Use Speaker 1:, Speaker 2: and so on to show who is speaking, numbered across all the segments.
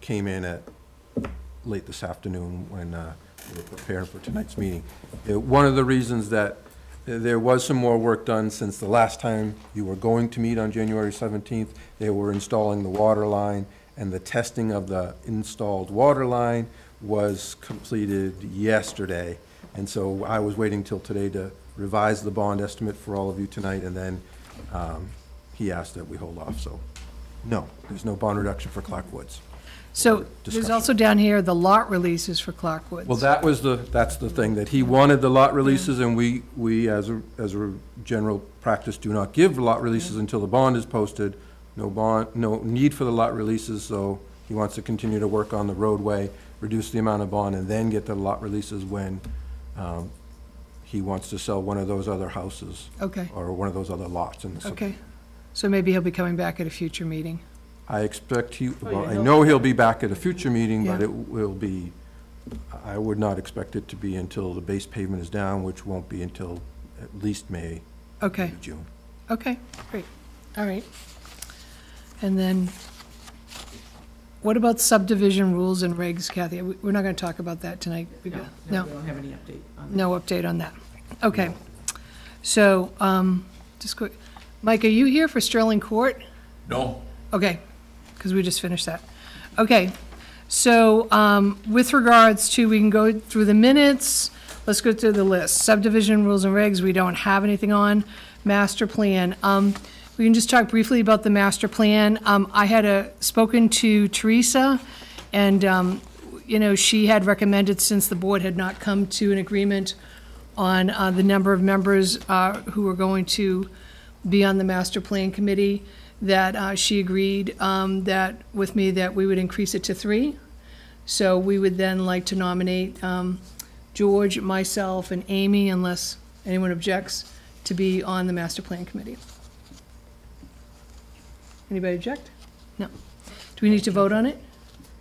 Speaker 1: came in at late this afternoon when uh, we were preparing for tonight's meeting. Uh, One of the reasons that uh, there was some more work done since the last time you were going to meet on January 17th, they were installing the water line, and the testing of the installed water line was completed yesterday. And so I was waiting till today to revise the bond estimate for all of you tonight, and then um, he asked that we hold off, so, no, there's no bond reduction for Clark Woods.
Speaker 2: So there's
Speaker 1: Discussion.
Speaker 2: also down here, the lot releases for Clark Woods.
Speaker 1: Well, that was the, that's the thing, that he wanted the lot releases, and we, we, as a, as a general practice, do not give lot releases until the bond is posted. No bond, no need for the lot releases, so he wants to continue to work on the roadway, reduce the amount of bond, and then get the lot releases when, um, he wants to sell one of those other houses,
Speaker 2: Okay,
Speaker 1: or one of those other lots in the. sub-
Speaker 2: okay. So maybe he'll be coming back at a future meeting.
Speaker 1: I expect he,
Speaker 3: Oh, you
Speaker 1: well, I
Speaker 3: know.
Speaker 1: know he'll be back at a future meeting, but
Speaker 2: Yeah.
Speaker 1: it will be, I would not expect it to be until the base pavement is down, which won't be until at least May,
Speaker 2: Okay,
Speaker 1: maybe June.
Speaker 2: okay, great, all right. And then, what about subdivision rules and regs, Kathy? We- We're not gonna talk about that tonight. We
Speaker 3: No,
Speaker 2: got-
Speaker 3: no, we don't have any update on that.
Speaker 2: No update on that. Okay. So, um, just quick, Mike, are you here for Sterling Court?
Speaker 4: No,
Speaker 2: Okay, because we just finished that. Okay, so um, with regards to, we can go through the minutes, let's go through the list. Subdivision rules and regs, we don't have anything on. Master plan, um, we can just talk briefly about the master plan. Um, I had uh, spoken to Teresa, and, um, you know, she had recommended, since the board had not come to an agreement on uh, the number of members uh, who were going to be on the master plan committee, that uh, she agreed um, that, with me, that we would increase it to three. So we would then like to nominate um, George, myself, and Amy, unless anyone objects, to be on the master plan committee. Anybody object? No. Do we need to vote on it?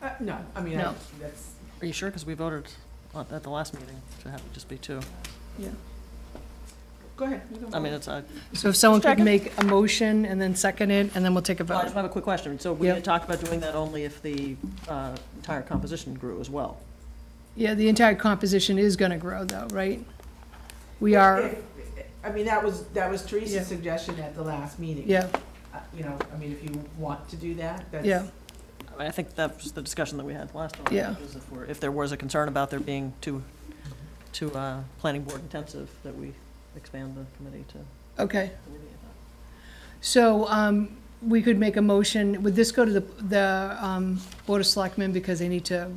Speaker 3: Uh, No, I mean, I-
Speaker 2: No.
Speaker 3: that's,
Speaker 5: Are you sure? Because we voted on- at the last meeting to have it just be two.
Speaker 3: go ahead. you can
Speaker 5: I
Speaker 3: vote.
Speaker 5: mean, it's a,
Speaker 2: So if someone could
Speaker 5: Second.
Speaker 2: make a motion and then second it, and then we'll take a
Speaker 5: well, I
Speaker 2: vote.
Speaker 5: just have a quick question. So we
Speaker 2: Yep.
Speaker 5: had talked about doing that only if the uh, entire composition grew as well.
Speaker 2: Yeah, the entire composition is gonna grow though, right? We are,
Speaker 3: If- I mean, that was, that was
Speaker 2: Yeah.
Speaker 3: Teresa's suggestion at the last meeting.
Speaker 2: yeah,
Speaker 3: Uh, You know, I mean, if you want to do that, that's.
Speaker 2: Yeah.
Speaker 5: I mean, I think that was the discussion that we had last time.
Speaker 2: Yeah.
Speaker 5: was If we're- if there was a concern about there being too, too uh, planning board intensive, that we expand the committee to
Speaker 2: okay.
Speaker 5: alleviate that.
Speaker 2: So, um, we could make a motion, would this go to the, the, um, Board of Selectmen because they need to,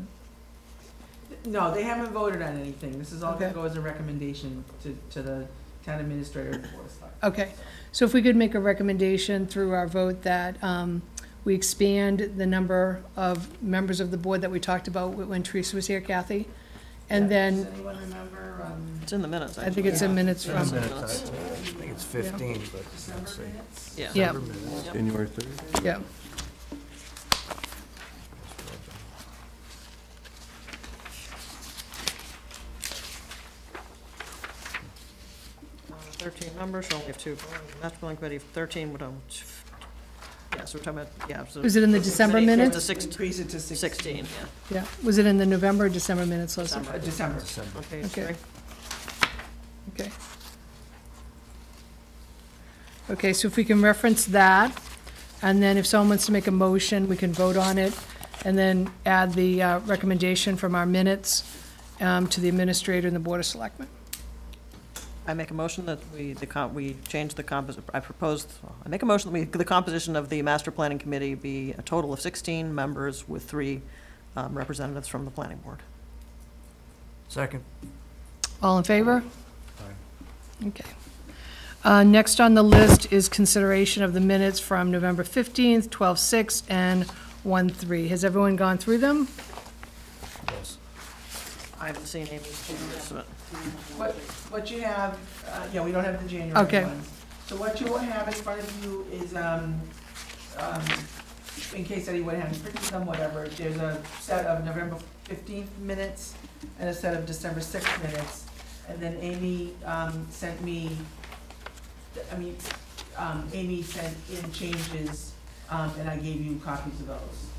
Speaker 3: No, they haven't voted on anything. This is all gonna
Speaker 2: Okay.
Speaker 3: go as a recommendation to, to the town administrator and board of selectmen.
Speaker 2: okay. So if we could make a recommendation through our vote that, um, we expand the number of members of the board that we talked about when Teresa was here, Kathy? And then,
Speaker 3: Does anyone remember, um,
Speaker 5: It's in the minutes.
Speaker 2: I think it's in minutes
Speaker 5: Yeah.
Speaker 2: from,
Speaker 6: Minutes, I think it's 15, but let's see.
Speaker 3: minutes?
Speaker 5: Yeah.
Speaker 2: yeah,
Speaker 5: Yep.
Speaker 1: January 3rd?
Speaker 2: yeah.
Speaker 5: Uh, 13 members, so we have two. Master Plan Committee, 13, we don't, um, yeah, so we're talking about, yeah. so-
Speaker 2: Was it in the Oh, December
Speaker 5: Committee,
Speaker 2: minutes?
Speaker 5: The six-
Speaker 3: Increase it to sixteen.
Speaker 5: 16, yeah.
Speaker 2: Yeah, was it in the November or December minutes, Leslie?
Speaker 3: Uh, December.
Speaker 6: December.
Speaker 5: On page
Speaker 2: Okay.
Speaker 5: three.
Speaker 2: Okay. Okay, so if we can reference that, and then if someone wants to make a motion, we can vote on it, and then add the uh, recommendation from our minutes um, to the administrator and the Board of Selectmen.
Speaker 5: I make a motion that we, the com, we change the compos, I proposed, I make a motion that we, the composition of the master planning committee be a total of sixteen members with three um, representatives from the planning board.
Speaker 6: Second.
Speaker 2: All in favor? Okay. Uh, Next on the list is consideration of the minutes from November 15th, 12/6, and 1/3. Has everyone gone through them?
Speaker 6: Yes.
Speaker 5: I haven't seen Amy's minutes, but
Speaker 3: What, what you have, uh, yeah, we don't have the January
Speaker 2: Okay.
Speaker 3: ones. So what you will have in front of you is, um, um, in case anyone hasn't printed them, whatever, there's a set of November fifteenth minutes and a set of December sixth minutes. And then Amy, um, sent me, I mean, um, Amy sent in changes, um, and I gave you copies of those.